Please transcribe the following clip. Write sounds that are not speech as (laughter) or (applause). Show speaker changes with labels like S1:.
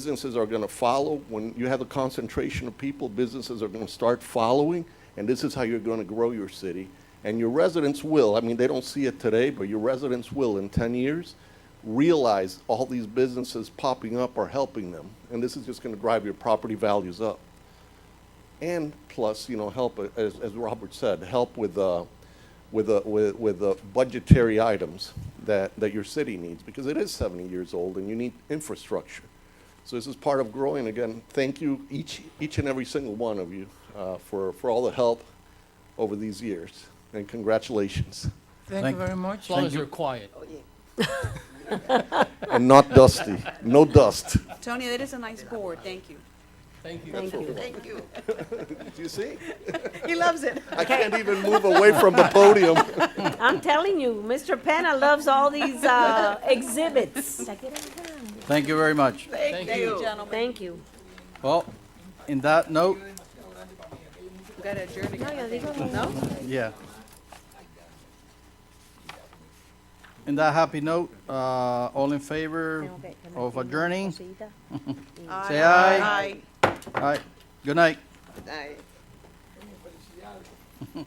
S1: Businesses are going to follow. When you have a concentration of people, businesses are going to start following, and this is how you're going to grow your city. And your residents will, I mean, they don't see it today, but your residents will in 10 years realize all these businesses popping up are helping them. And this is just going to drive your property values up. And plus, you know, help, uh, as, as Robert said, help with, uh, with, uh, with, with uh, budgetary items that, that your city needs, because it is 70 years old and you need infrastructure. So this is part of growing. Again, thank you, each, each and every single one of you, uh, for, for all the help over these years, and congratulations.
S2: Thank you very much.
S3: As long as you're quiet.
S1: And not dusty, no dust.
S4: Tony, that is a nice board, thank you.
S3: Thank you.
S1: That's what we want.
S4: Thank you.
S1: Do you see?
S4: (laughs) He loves it.
S1: I can't even move away from the podium.
S5: I'm telling you, Mr. Penna loves all these uh, exhibits.
S2: Thank you very much.
S4: Thank you, gentlemen.
S5: Thank you.
S2: Well, in that note,
S4: We gotta adjourn again.
S2: yeah. In that happy note, uh, all in favor of adjourning? Say aye.
S4: Aye.
S2: All right, good night.
S4: Aye.